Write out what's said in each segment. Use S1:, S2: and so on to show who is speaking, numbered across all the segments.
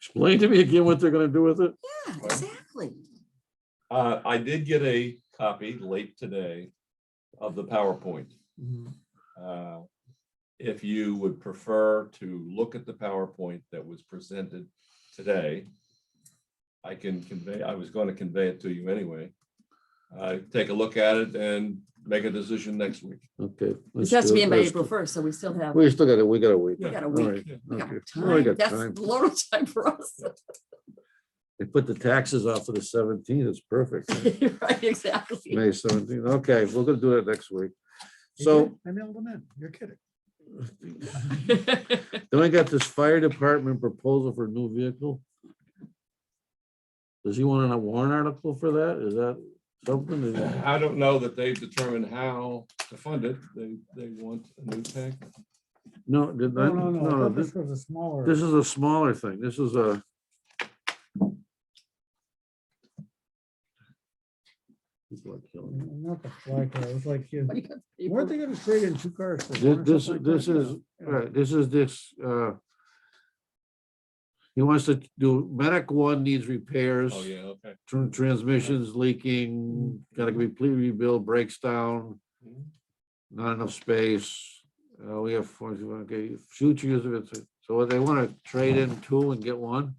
S1: Explain to me again what they're gonna do with it.
S2: Yeah, exactly.
S3: Uh, I did get a copy late today of the PowerPoint.
S1: Mm-hmm.
S3: Uh, If you would prefer to look at the PowerPoint that was presented today, I can convey, I was going to convey it to you anyway. Uh, Take a look at it and make a decision next week.
S1: Okay.
S2: It
S1: let's
S2: has to
S1: do
S2: be
S1: it.
S2: in by
S1: Let's-
S2: April first, so we still have, we
S1: We still got it, we got a week.
S3: We
S2: got a
S1: All
S2: week.
S1: right,
S2: We got
S1: okay. Well, we
S2: time.
S1: got
S2: That's
S1: time.
S2: load of time for us.
S1: They put the taxes off for the seventeenth, it's perfect.
S2: Right, exactly.
S1: May seventeenth, okay, we're gonna do that next week. So
S4: I mailed them in. You're kidding.
S1: then I got this fire department proposal for a new vehicle. Does he want a warrant article for that? Is that something? that-
S3: I don't know that they've determined how to fund it. They, they want a new tank.
S1: No, did
S4: No,
S1: that,
S4: no,
S1: no,
S4: no. I thought
S1: this-
S4: This was a smaller.
S1: This is a smaller thing. This is a. People are killing me.
S4: Not the fly car. It was like, you- weren't
S2: Paper.
S4: they gonna trade in two cars? for
S1: Thi-
S4: one or
S1: This,
S4: something like
S1: this
S4: that?
S1: is,
S4: Yeah.
S1: right, this is this, uh. He wants to do, medic one needs repairs,
S3: Oh, yeah, okay.
S1: tr- transmissions leaking, gotta completely rebuild, breaks down, not enough space. Uh, we have, 41, okay, future use of it, so they wanna trade in two and get one,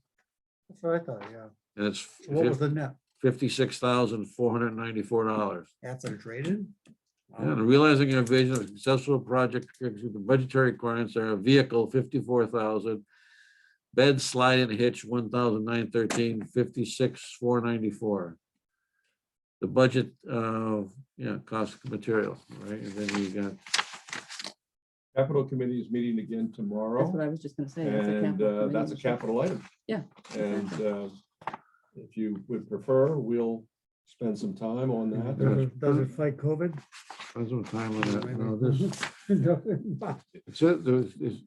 S4: That's what I thought, yeah.
S1: and it's
S4: So What was the net?
S1: fifty-six thousand, four hundred and ninety-four dollars.
S4: That's a trade-in?
S1: And realizing your vision of successful project, the budgetary requirements are a vehicle fifty-four thousand. Bed slide and hitch one thousand nine thirteen fifty-six four ninety-four. The budget uh yeah, cost of material, right? And then you got,
S3: Capital Committee is meeting again tomorrow.
S2: That's what I was just gonna say. that's a
S3: And
S2: capital
S3: uh, that's a
S2: committee.
S3: capital item.
S2: Yeah,
S3: And uh, if you would prefer, we'll spend some time on
S4: Does
S3: that.
S4: it- does it fight COVID?
S1: spend some time on that. No, this.
S4: Maybe.
S1: So there's, is,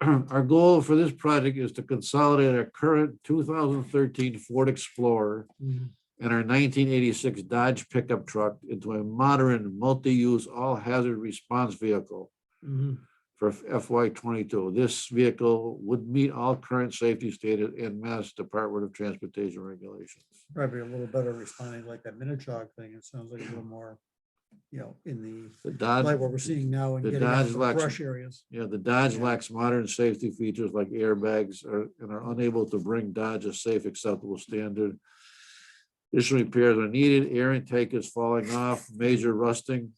S1: our goal for this project is to consolidate our current 2013 Ford Explorer
S4: Mhm.
S1: and our 1986 Dodge pickup truck into a modern, multi-use, all-hazard response vehicle Mm-hmm.
S4: Mhm.
S1: for FY '22. This vehicle would meet all current safety stated in Mass Department of Transportation regulations.
S4: Probably a little better responding like that Minichog thing. It sounds like a little more, you know, in the,
S1: The Dodge.
S4: like what we're seeing now and
S1: the
S4: getting out
S1: Dodge
S4: of the
S1: Lexus-
S4: brush areas.
S1: Yeah, the Dodge
S4: Yeah.
S1: lacks modern safety features like airbags are- and are unable to bring Dodge a safe acceptable standard. Additional repairs are needed. Air intake is falling off, major rusting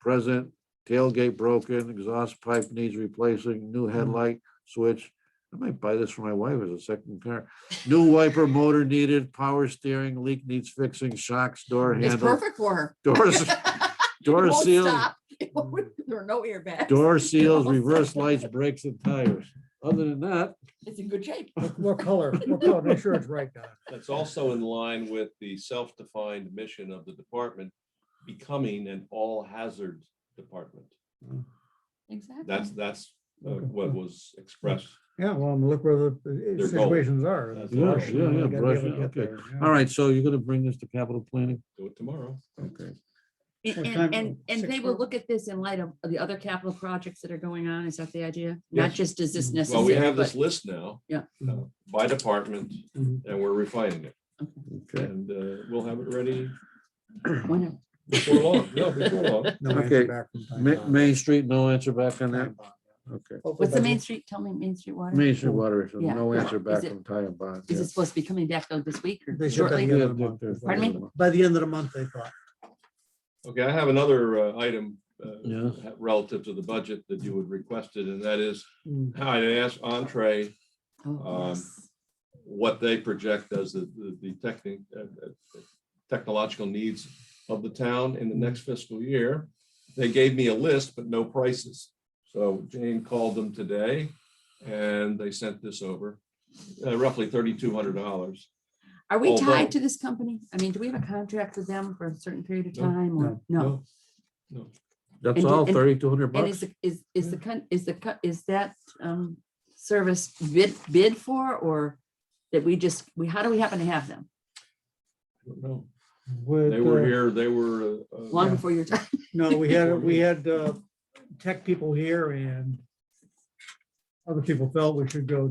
S1: present, tailgate broken, exhaust pipe needs replacing, new
S2: Mm.
S1: headlight switch. I might buy this for my wife as a second car. New wiper motor needed, power steering leak needs fixing, shocks, door
S2: It's
S1: handle,
S2: perfect for her.
S1: doors,
S2: It
S1: door
S2: won't
S1: seals.
S2: stop. It won't- There are no airbags.
S1: Door seals,
S2: won't
S1: reverse
S2: stop.
S1: lights, brakes and tires. Other than that,
S2: It's in good shape.
S4: What color? What color? Make sure it's right, Don.
S3: That's also in line with the self-defined mission of the department, becoming an all-hazard department.
S2: Exactly.
S3: That's, that's uh, what was expressed.
S4: Yeah, well, I'm look where the uh,
S3: Their goal.
S4: situations are.
S3: That's
S4: the brush,
S3: right.
S4: you
S1: Yeah,
S4: know,
S1: yeah,
S4: you gotta be
S1: brush,
S4: able to
S1: yeah,
S4: get
S1: okay.
S4: there, yeah.
S1: all right, so you're gonna bring this to capital planning?
S3: Do it tomorrow.
S1: Okay.
S2: And,
S4: What
S2: and,
S4: time?
S2: and- and
S4: Six
S2: they will
S4: thirty?
S2: look at this in light of the other capital projects that are going on. Is that the idea? Not
S3: Yes.
S2: just is this
S3: Well, we
S2: necessary,
S3: have this
S2: but
S3: list now.
S2: Yeah.
S3: uh, By department,
S4: Mhm.
S3: and we're refining it.
S1: Okay,
S3: And uh, we'll have it ready
S2: whenever.
S3: before long. No, before long.
S4: No answer
S1: Okay.
S4: back from time
S1: Ma-
S4: bomb.
S1: Main Street, no answer back on that?
S4: Time bomb, yeah.
S1: Okay.
S4: Hopefully
S2: What's the
S4: by
S2: main street? Tell me Main Street water.
S1: Main Street Water, Issue,
S2: Yeah.
S1: no answer back
S2: Is it-
S1: from Ty and Bond.
S2: Is
S1: yeah.
S2: it supposed to be coming back though this week
S4: They
S2: or
S4: should have
S2: shortly?
S4: the
S1: Yeah,
S4: end of the
S1: they're-
S4: month.
S1: they're-
S2: Pardon
S4: the- By the end of the month, they thought.
S3: Okay, I have another uh, item uh,
S1: Yes.
S3: relative to the budget that you had requested, and that is,
S4: Mm.
S3: I asked Entree
S2: Oh,
S3: Um,
S2: yes.
S3: what they project as the, the- the technic, uh, uh, technological needs of the town in the next fiscal year. They gave me a list, but no prices. So Jane called them today, and they sent this over, uh, roughly thirty-two hundred dollars.
S2: Are we
S3: although-
S2: tied to this company? I mean, do we have a contract with them for a certain period of
S3: No,
S2: time or no?
S3: Oh,
S1: That's
S2: and-
S1: all,
S2: and-
S1: thirty-two hundred
S2: And
S1: bucks?
S2: is, the- is, is the, con- is the, co- is that um, service bid, bid for or that we just, we, how do we happen to have them?
S3: No,
S4: Would,
S3: they were
S4: uh,
S3: here, they were. uh, uh,
S2: Long
S4: Yeah.
S2: before your time?
S4: No, we had, we had uh, tech people here and other people felt we should go